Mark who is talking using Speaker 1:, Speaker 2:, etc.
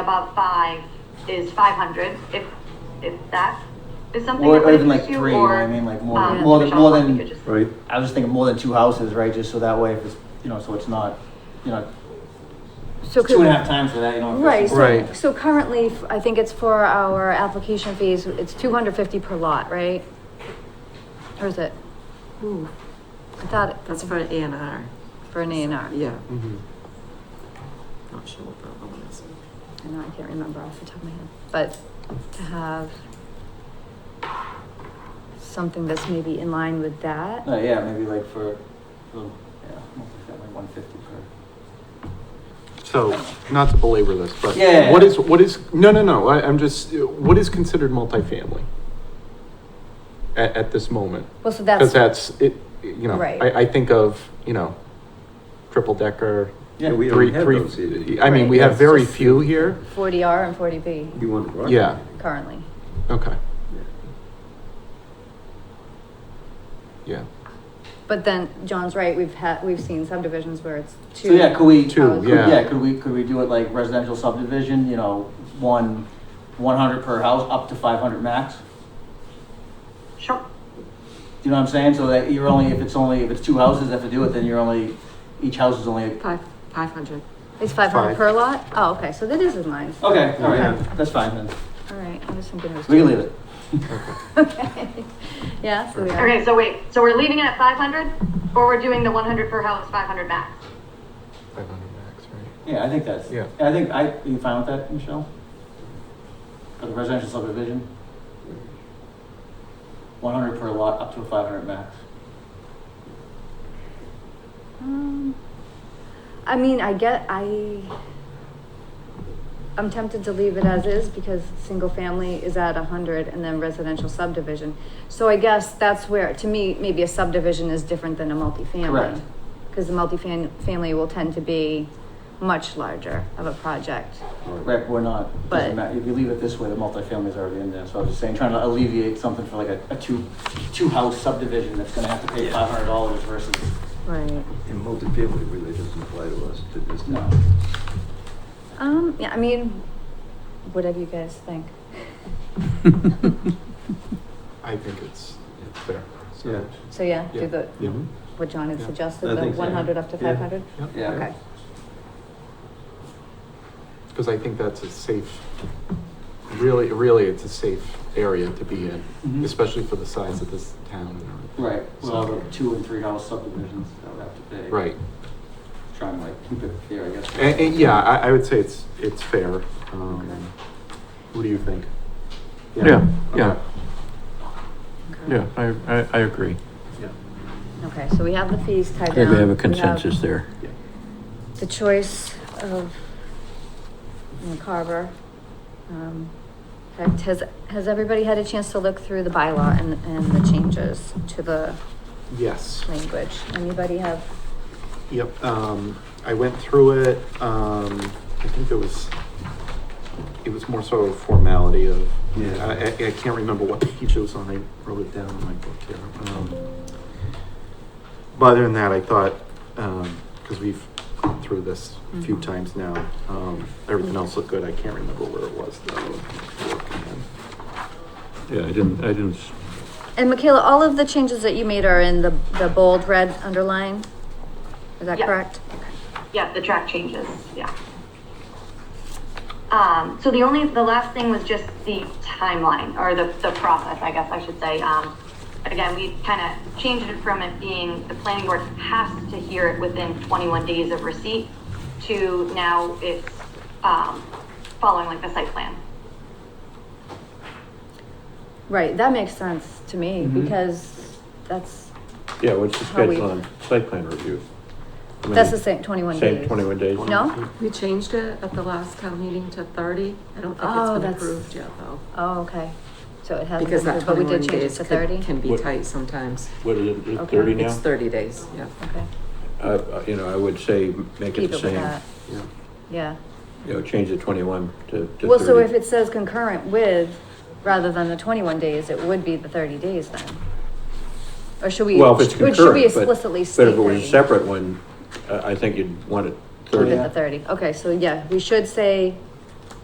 Speaker 1: above five is five hundred, if, if that is something.
Speaker 2: Or-
Speaker 1: that
Speaker 2: or
Speaker 1: would
Speaker 2: even like
Speaker 1: interest you,
Speaker 2: three, you know what I
Speaker 1: or,
Speaker 2: mean? Like more
Speaker 1: um,
Speaker 2: than- more than-
Speaker 1: Michelle,
Speaker 2: more
Speaker 1: why don't
Speaker 2: than-
Speaker 1: you just-
Speaker 3: Right,
Speaker 2: I was just thinking more than two houses, right? Just so that way, if it's, you know, so it's not, you know,
Speaker 4: So
Speaker 2: two and a
Speaker 4: could-
Speaker 2: half times for that, you know. if
Speaker 4: Right,
Speaker 2: it's-
Speaker 4: so,
Speaker 3: Right.
Speaker 4: so currently, f- I think it's for our application fees, it's two hundred fifty per lot, right? Or is it? Ooh, I thought it-
Speaker 5: That's for an A and R,
Speaker 4: for an A and R.
Speaker 5: yeah. Not sure what that one is.
Speaker 4: I know, I can't remember off the top of my head, but to have something that's maybe in line with that,
Speaker 2: Uh, yeah, maybe like for, for yeah, like one fifty per.
Speaker 3: so, not to belabor this, but
Speaker 2: Yeah.
Speaker 3: what is, what is, no, no, no, I, I'm just, what is considered multifamily? At, at this moment,
Speaker 4: well, so
Speaker 3: because
Speaker 4: that's,
Speaker 3: that's, it, you know,
Speaker 4: Right.
Speaker 3: I, I think of, you know, triple decker.
Speaker 6: Yeah, we
Speaker 3: three-
Speaker 6: already have
Speaker 3: three-
Speaker 6: those here.
Speaker 3: I mean, we
Speaker 4: Right.
Speaker 3: have very
Speaker 4: Just-
Speaker 3: few here,
Speaker 4: forty R and forty B
Speaker 6: You want to broaden
Speaker 3: Yeah.
Speaker 6: it.
Speaker 4: currently.
Speaker 3: okay. Yeah,
Speaker 4: But then, John's right, we've had, we've seen subdivisions where it's two.
Speaker 2: So yeah, could we?
Speaker 3: Two,
Speaker 2: could-
Speaker 3: yeah.
Speaker 2: Yeah, could we, could we do it like residential subdivision, you know, one, one hundred per house, up to five hundred max?
Speaker 1: Sure,
Speaker 2: Do you know what I'm saying? So that you're only, if it's only, if it's two houses that have to do it, then you're only, each house is only, okay,
Speaker 5: Five, five hundred.
Speaker 4: It's five hundred
Speaker 3: Five.
Speaker 4: per lot? Oh, okay, so that is in line.
Speaker 2: all right,
Speaker 4: Okay.
Speaker 2: that's fine then.
Speaker 4: All right, I'm just thinking it was.
Speaker 2: We can leave it.
Speaker 4: Okay, yeah, so we are.
Speaker 1: okay, so wait, so we're leaving it at five hundred, or we're doing the one hundred per house, five hundred max?
Speaker 3: five hundred max, right?
Speaker 2: Yeah, I think that's,
Speaker 3: Yeah.
Speaker 2: I think, I, are you fine with that, Michelle? For the residential subdivision? One hundred per lot, up to a five hundred max.
Speaker 4: Um, I mean, I get, I, I'm tempted to leave it as is because single family is at a hundred and then residential subdivision. So I guess that's where, to me, maybe a subdivision is different than a multifamily.
Speaker 2: Correct.
Speaker 4: Because the multifam- family will tend to be much larger of a project.
Speaker 2: Right, we're not, doesn't
Speaker 4: But-
Speaker 2: matter, if you leave it this way, the multifamily is already in there, so I was just saying, trying to alleviate something for like a, a two, two-house subdivision that's gonna have to pay five hundred dollars versus,
Speaker 4: Right.
Speaker 6: And multifamily really doesn't apply to us to this
Speaker 2: no.
Speaker 6: town.
Speaker 4: Um, yeah, I mean, whatever you guys think.
Speaker 3: I think it's, it's fair,
Speaker 6: Yeah.
Speaker 3: so.
Speaker 4: So yeah,
Speaker 3: Yeah.
Speaker 4: do the,
Speaker 3: Yeah.
Speaker 4: what John had
Speaker 3: Yeah.
Speaker 4: suggested,
Speaker 6: I
Speaker 4: the
Speaker 6: think so.
Speaker 4: one hundred up to
Speaker 6: Yeah.
Speaker 4: five hundred?
Speaker 2: Yeah.
Speaker 4: Okay.
Speaker 3: Because I think that's a safe, really, really, it's a safe area to be in,
Speaker 2: Mhm.
Speaker 3: especially for the size of this town and everything.
Speaker 2: Right, well,
Speaker 3: So-
Speaker 2: the two and three-house subdivisions that would have to pay.
Speaker 3: Right,
Speaker 2: Trying to like keep it fair, I guess.
Speaker 3: and, and yeah, I, I would say it's, it's fair. Um,
Speaker 4: Okay.
Speaker 3: What do you think?
Speaker 7: Yeah, yeah,
Speaker 3: Okay.
Speaker 7: yeah, I, I, I agree.
Speaker 4: Okay, so we have the fees tied
Speaker 7: I
Speaker 4: down.
Speaker 7: think we have a
Speaker 4: have
Speaker 7: consensus there.
Speaker 4: The choice of you know, Carver. Um, Has, has- has everybody had a chance to look through the bylaw and, and the changes to the
Speaker 3: Yes.
Speaker 4: language? Anybody have?
Speaker 3: Yep, um, I went through it, um, I think there was, it was more so a formality of,
Speaker 6: Yeah.
Speaker 3: I, I, I can't remember what page it was on, I wrote it down in my book here. Um, But other than that, I thought, um, cause we've gone through this a few
Speaker 4: Mhm.
Speaker 3: times now, um, everything else looked good, I can't remember where it was though.
Speaker 7: Yeah, I didn't, I didn't, s-
Speaker 4: And Michaela, all of the changes that you made are in the, the bold red underline? Is that
Speaker 1: Yeah.
Speaker 4: correct?
Speaker 1: Yeah, the track changes, yeah. Um, so the only, the last thing was just the timeline, or the, the process, I guess I should say. Um, again, we kind of changed it from it being the planning board has to hear it within twenty-one days of receipt to now it's, um, following like the site plan.
Speaker 4: Right, that makes sense to me
Speaker 7: Mm-hmm.
Speaker 4: because that's,
Speaker 7: yeah, what's the
Speaker 4: How we-
Speaker 7: schedule on site plan review? I mean,
Speaker 4: that's the same twenty-one days.
Speaker 7: Same twenty-one days?
Speaker 4: No?
Speaker 5: We changed it at the last town meeting to thirty. I don't think
Speaker 4: Oh,
Speaker 5: it's been
Speaker 4: that's-
Speaker 5: approved yet though.
Speaker 4: Oh, okay. So it hasn't
Speaker 5: Because
Speaker 4: been,
Speaker 5: that
Speaker 4: approved, but we
Speaker 5: twenty-one
Speaker 4: did change it
Speaker 5: days
Speaker 4: to
Speaker 5: could-
Speaker 4: thirty?
Speaker 5: can be
Speaker 7: What-
Speaker 5: tight sometimes.
Speaker 7: What is it, is it
Speaker 4: Okay.
Speaker 7: thirty
Speaker 5: It's
Speaker 7: now?
Speaker 5: thirty days, yeah.
Speaker 4: Okay.
Speaker 7: Uh, Uh, you know, I would say make it
Speaker 4: Keep
Speaker 7: the
Speaker 4: it with
Speaker 7: same,
Speaker 4: that,
Speaker 3: Yeah.
Speaker 4: yeah.
Speaker 7: you know, change the twenty-one to, to thirty.
Speaker 4: Well, so if it says concurrent with, rather than the twenty-one days, it would be the thirty days then? Or should we?
Speaker 7: Well, if it's
Speaker 4: should-
Speaker 7: concurrent,
Speaker 4: Should we
Speaker 7: but-
Speaker 4: explicitly
Speaker 7: But
Speaker 4: state
Speaker 7: if it was a
Speaker 4: 30?
Speaker 7: separate one, I, I think you'd want it
Speaker 4: Keep
Speaker 7: thirty.
Speaker 4: it the thirty, okay, so yeah, we should say